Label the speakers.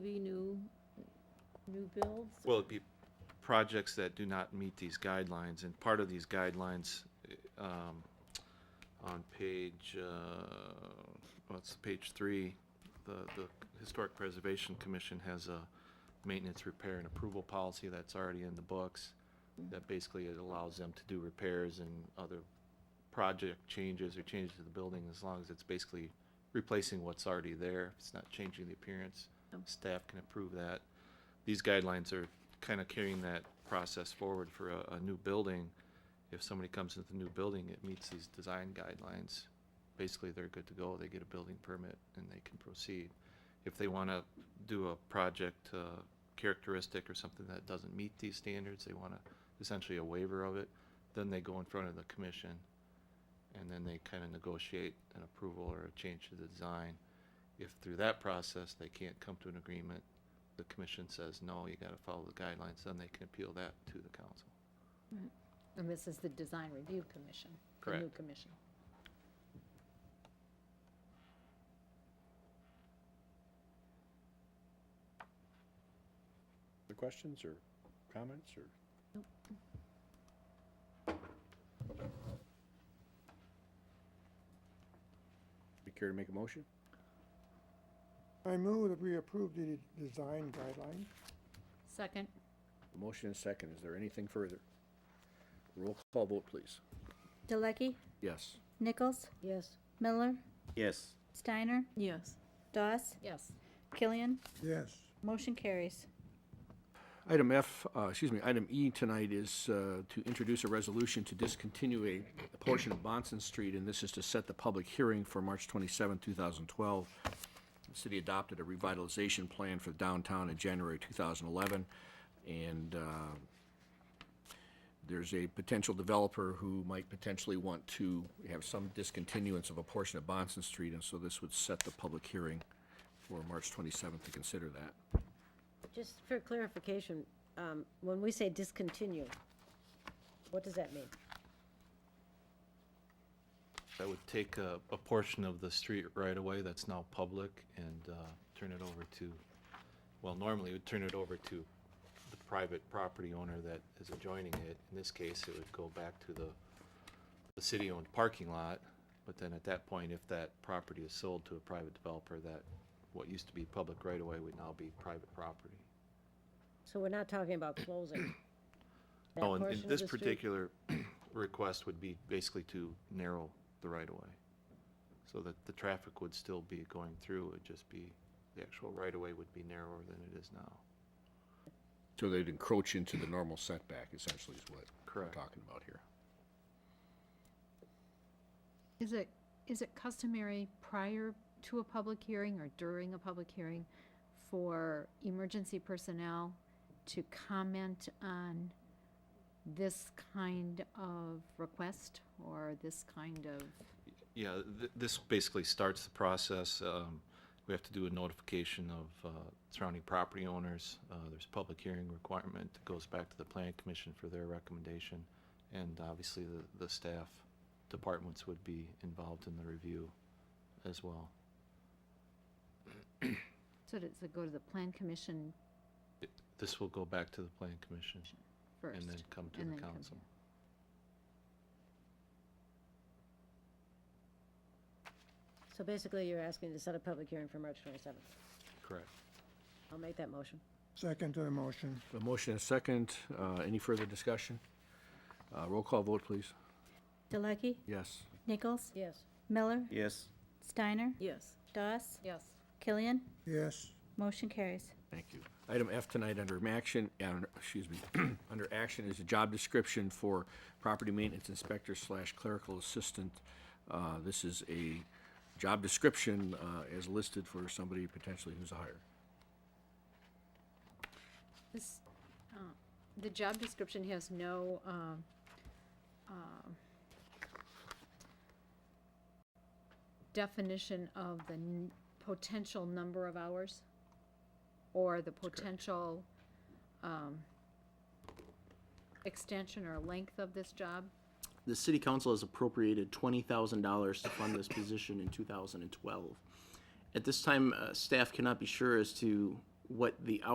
Speaker 1: new builds?
Speaker 2: Well, it'd be projects that do not meet these guidelines, and part of these guidelines, eh, um, on page, uh, what's page three, the, the Historic Preservation Commission has a maintenance, repair, and approval policy that's already in the books, that basically it allows them to do repairs and other project changes or changes to the building, as long as it's basically replacing what's already there, it's not changing the appearance. Staff can approve that these guidelines are kind of carrying that process forward for a, a new building. If somebody comes into the new building, it meets these design guidelines. Basically, they're good to go. They get a building permit and they can proceed. If they want to do a project, uh, characteristic or something that doesn't meet these standards, they want to, essentially a waiver of it, then they go in front of the commission. And then they kind of negotiate an approval or a change to the design. If through that process, they can't come to an agreement, the commission says, no, you gotta follow the guidelines, then they can appeal that to the council.
Speaker 1: And this is the Design Review Commission, the new
Speaker 2: Correct.
Speaker 1: commission.
Speaker 3: Other questions or comments or? You care to make a motion?
Speaker 4: I move that we approve the design guidelines.
Speaker 1: Second,
Speaker 3: A motion and a second. Is there anything further? Roll call vote, please.
Speaker 5: Delecky,
Speaker 3: Yes.
Speaker 5: Nichols,
Speaker 1: yes.
Speaker 5: Miller,
Speaker 6: Yes.
Speaker 5: Steiner,
Speaker 7: Yes.
Speaker 5: Doss,
Speaker 1: Yes,
Speaker 5: Killian.
Speaker 4: Yes.
Speaker 5: Motion carries.
Speaker 3: Item F, uh, excuse me, item E tonight is uh, to introduce a resolution to discontinue a a portion of Bonson Street, and this is to set the public hearing for March 27, 2012. The city adopted a revitalization plan for downtown in January 2011, and uh, there's a potential developer who might potentially want to have some discontinuance of a portion of Bonson Street, and so this would set the public hearing for March 27th to consider that.
Speaker 7: Just for clarification, um, when we say discontinue, what does that mean?
Speaker 2: That would take a, a portion of the street right away that's now public and, uh, turn it over to, well, normally it would turn it over to the private property owner that is adjoining it. In this case, it would go back to the, the city-owned parking lot. But then at that point, if that property is sold to a private developer, that, what used to be public right away would now be private property.
Speaker 7: So we're not talking about closing. that
Speaker 2: Oh, and and
Speaker 7: portion of
Speaker 2: this
Speaker 7: the street?
Speaker 2: particular request would be basically to narrow the right-of-way, so that the traffic would still be going through, it'd just be, the actual right-of-way would be narrower than it is now.
Speaker 3: So they'd encroach into the normal setback essentially is what we're
Speaker 2: Correct.
Speaker 3: talking about here.
Speaker 8: Is it, is it customary prior to a public hearing or during a public hearing for emergency personnel to comment on this kind of request or this kind of,
Speaker 2: Yeah, th- this basically starts the process, um, we have to do a notification of, uh, surrounding property owners, uh, there's a public hearing requirement that goes back to the planning commission for their recommendation, and obviously the, the staff departments would be involved in the review as well.
Speaker 8: so does it go to the plan commission
Speaker 2: This will go back to the planning commission
Speaker 8: first?
Speaker 2: and then come to
Speaker 8: and
Speaker 2: the
Speaker 8: then come
Speaker 2: council.
Speaker 7: So basically, you're asking to set a public hearing for March 27th.
Speaker 2: Correct.
Speaker 7: I'll make that motion.
Speaker 4: Second to the motion.
Speaker 3: A motion and a second. Uh, Any further discussion? Uh, Roll call vote, please.
Speaker 5: Delecky,
Speaker 3: Yes.
Speaker 5: Nichols,
Speaker 7: Yes.
Speaker 5: Miller,
Speaker 6: Yes.
Speaker 5: Steiner,
Speaker 7: Yes.
Speaker 5: Doss,
Speaker 1: yes.
Speaker 5: Killian.
Speaker 4: Yes.
Speaker 5: Motion carries.
Speaker 3: Thank you. Item F tonight under action, uh, excuse me, under action is a job description for property maintenance inspector slash clerical assistant. Uh, This is a job description uh, as listed for somebody potentially who's hired.
Speaker 8: This, uh, the job description has no, um, um, definition of the n- potential number of hours or the potential, um, extension or length of this job.
Speaker 6: The city council has appropriated twenty thousand dollars to fund this position in two thousand and twelve. At this time, uh, staff cannot be sure as to what the